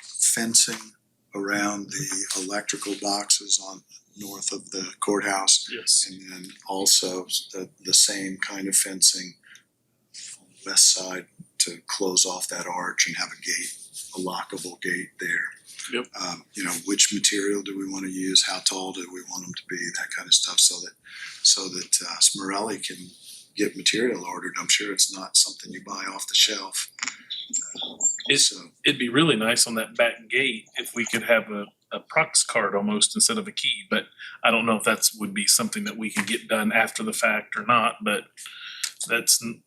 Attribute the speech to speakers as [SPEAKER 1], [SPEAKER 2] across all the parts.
[SPEAKER 1] fencing around the electrical boxes on north of the courthouse.
[SPEAKER 2] Yes.
[SPEAKER 1] And then also the, the same kind of fencing on the west side to close off that arch and have a gate, a lockable gate there.
[SPEAKER 2] Yep.
[SPEAKER 1] Um, you know, which material do we wanna use, how tall do we want them to be, that kind of stuff, so that, so that uh, Smirelli can get material ordered. I'm sure it's not something you buy off the shelf. Uh,
[SPEAKER 2] Is-
[SPEAKER 1] So,
[SPEAKER 2] It'd be really nice on that back gate if we could have a, a prox card almost instead of a key, but I don't know if that's would be something that we could get done after the fact or not, but that's, n-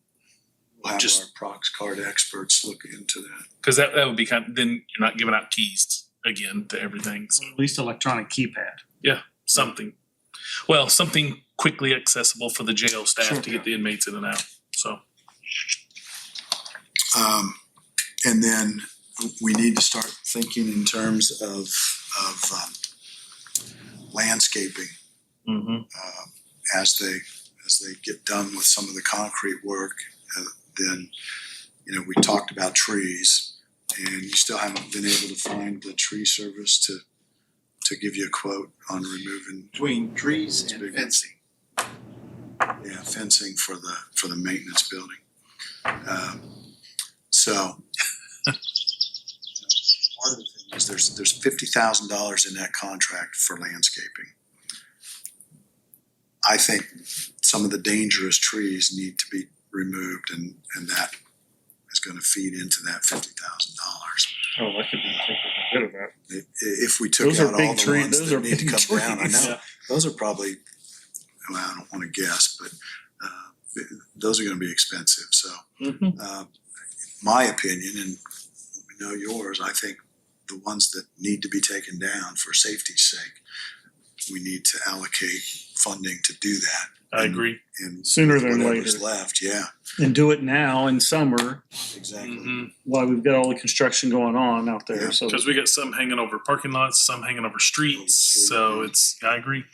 [SPEAKER 1] we'll have
[SPEAKER 2] Just-
[SPEAKER 1] our prox card experts look into that.
[SPEAKER 2] cause that, that would be kind, then you're not giving out keys again to everything, so
[SPEAKER 3] at least electronic keypad.
[SPEAKER 1] Mm-hmm.
[SPEAKER 2] something. Well, something quickly accessible for the jail
[SPEAKER 1] Sure.
[SPEAKER 2] staff to get the inmates in and out, so.
[SPEAKER 1] Um, and then we need to start thinking in terms of, of, um, landscaping,
[SPEAKER 2] Mm-hmm.
[SPEAKER 1] um, as they, as they get done with some of the concrete work. Uh, then, you know, we talked about trees and you still haven't been able to find the tree service to, to give you a quote on removing,
[SPEAKER 4] between trees and
[SPEAKER 1] Big.
[SPEAKER 4] fencing.
[SPEAKER 1] yeah, fencing for the, for the maintenance building. Um, so, part of the thing is there's, there's fifty thousand dollars in that contract for landscaping. I think some of the dangerous trees need to be removed and, and that is gonna feed into that fifty thousand dollars.
[SPEAKER 5] Oh, I could be rid of that.
[SPEAKER 1] If, if we took
[SPEAKER 5] Those
[SPEAKER 1] out
[SPEAKER 5] are
[SPEAKER 1] all
[SPEAKER 5] big
[SPEAKER 1] the
[SPEAKER 5] trees,
[SPEAKER 1] ones
[SPEAKER 5] those are
[SPEAKER 1] that need to
[SPEAKER 5] big
[SPEAKER 1] come down, I
[SPEAKER 5] trees.
[SPEAKER 1] know, those are probably, well, I don't wanna guess, but, uh, th- those are gonna be expensive, so. Uh, my opinion, and we know yours, I think the ones that need to be taken down for safety's sake, we need to allocate funding to do that.
[SPEAKER 2] I agree.
[SPEAKER 1] And
[SPEAKER 5] Sooner than later.
[SPEAKER 1] whatever's left, yeah,
[SPEAKER 3] And do it now in summer
[SPEAKER 1] exactly.
[SPEAKER 2] Mhm.
[SPEAKER 3] while we've got all the construction going on out
[SPEAKER 1] Yeah,
[SPEAKER 3] there, so.
[SPEAKER 2] Cause we got some hanging over parking lots, some hanging over streets,
[SPEAKER 1] Oh,
[SPEAKER 2] so it's, I agree.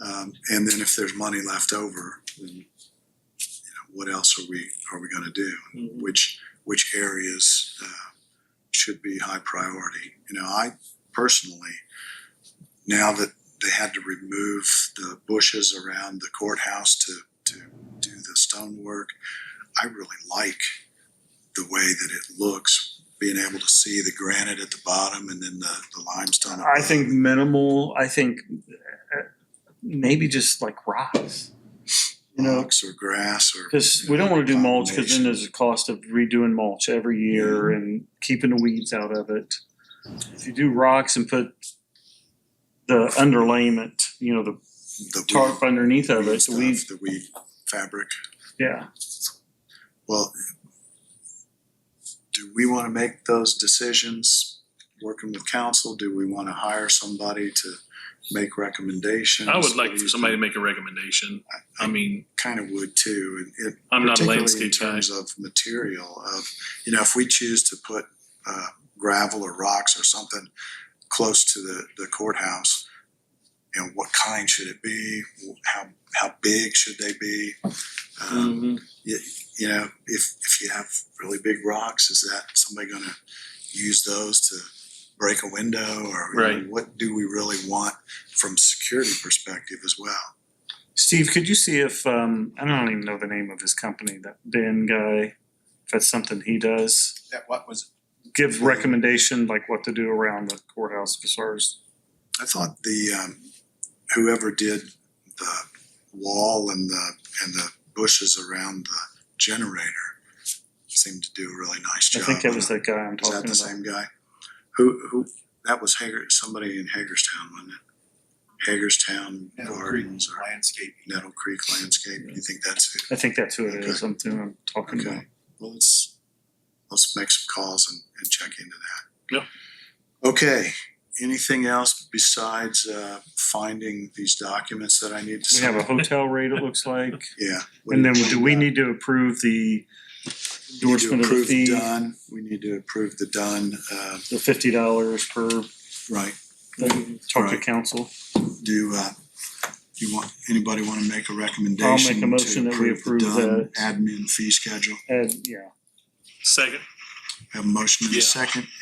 [SPEAKER 1] Um, and then if there's money left over, then, you know, what else are we, are we gonna do?
[SPEAKER 2] Mm-hmm.
[SPEAKER 1] Which, which areas, uh, should be high priority? You know, I personally, now that they had to remove the bushes around the courthouse to, to do the stonework, I really like the way that it looks, being able to see the granite at the bottom and then the, the limestone.
[SPEAKER 3] I think minimal, I think uh, maybe just like rocks. You know,
[SPEAKER 1] Rocks or grass or.
[SPEAKER 3] Because
[SPEAKER 1] you
[SPEAKER 3] we
[SPEAKER 1] know,
[SPEAKER 3] don't want to do mulch because
[SPEAKER 1] combination.
[SPEAKER 3] then there's a cost of redoing mulch every year and keeping the weeds out of it. If you do rocks and put the underlayment, you know, the
[SPEAKER 1] the
[SPEAKER 3] tarp underneath of it, the
[SPEAKER 1] stuff,
[SPEAKER 3] weeds,
[SPEAKER 1] the weave fabric.
[SPEAKER 3] yeah.
[SPEAKER 1] Well, do we want to make those decisions working with council? Do we want to hire somebody to make recommendations?
[SPEAKER 2] I would like for somebody to make a recommendation. I mean,
[SPEAKER 1] Kind of would too. and it-
[SPEAKER 2] I'm not a
[SPEAKER 1] particularly
[SPEAKER 2] landscape
[SPEAKER 1] In
[SPEAKER 2] guy.
[SPEAKER 1] terms of material of, you know, if we choose to put uh, gravel or rocks or something close to the the courthouse, you know, what kind should it be? How, how big should they be? Um, you know, if if you have really big rocks, is that somebody going to use those to break a window or you know,
[SPEAKER 2] Right.
[SPEAKER 1] what do we really want from security perspective as well?
[SPEAKER 3] Steve, could you see if, um, I don't even know the name of his company, that Dan guy, if that's something he does,
[SPEAKER 4] That what was,
[SPEAKER 3] give recommendation like what to do around the courthouse as far as
[SPEAKER 1] I thought the um, whoever did the wall and the and the bushes around the generator seemed to do a really nice
[SPEAKER 3] I
[SPEAKER 1] job.
[SPEAKER 3] think that was that guy I'm
[SPEAKER 1] Is that
[SPEAKER 3] talking
[SPEAKER 1] the
[SPEAKER 3] about.
[SPEAKER 1] same guy? Who who that was Hager somebody in Hagerstown, wasn't it? Hagerstown
[SPEAKER 4] Nettle Creek.
[SPEAKER 1] Gardens or
[SPEAKER 4] landscape.
[SPEAKER 1] Nettle Creek Landscape, you think that's it?
[SPEAKER 3] I think that's who it is, I'm, I'm talking about.
[SPEAKER 1] Okay, well, let's, let's make some calls and, and check into that.
[SPEAKER 2] Yeah.
[SPEAKER 1] Okay, anything else besides, uh, finding these documents that I need to?
[SPEAKER 3] We have a
[SPEAKER 1] sign?
[SPEAKER 3] hotel rate, it looks like.
[SPEAKER 1] Yeah.
[SPEAKER 3] And then do we need to approve the
[SPEAKER 1] We need to
[SPEAKER 3] endorsement of the
[SPEAKER 1] approve
[SPEAKER 3] fee,
[SPEAKER 1] Done, we need to approve the done, uh,
[SPEAKER 3] the fifty dollars per,
[SPEAKER 1] right,
[SPEAKER 3] talk to
[SPEAKER 1] Right.
[SPEAKER 3] council?
[SPEAKER 1] do, uh, do you want, anybody wanna make a recommendation?
[SPEAKER 3] motion
[SPEAKER 1] to
[SPEAKER 3] that we
[SPEAKER 1] the
[SPEAKER 3] approve
[SPEAKER 1] Dunn
[SPEAKER 3] that.
[SPEAKER 1] Admin fee schedule,
[SPEAKER 3] And, yeah.
[SPEAKER 2] Second.
[SPEAKER 1] have a motion in a
[SPEAKER 2] Yeah.
[SPEAKER 1] second,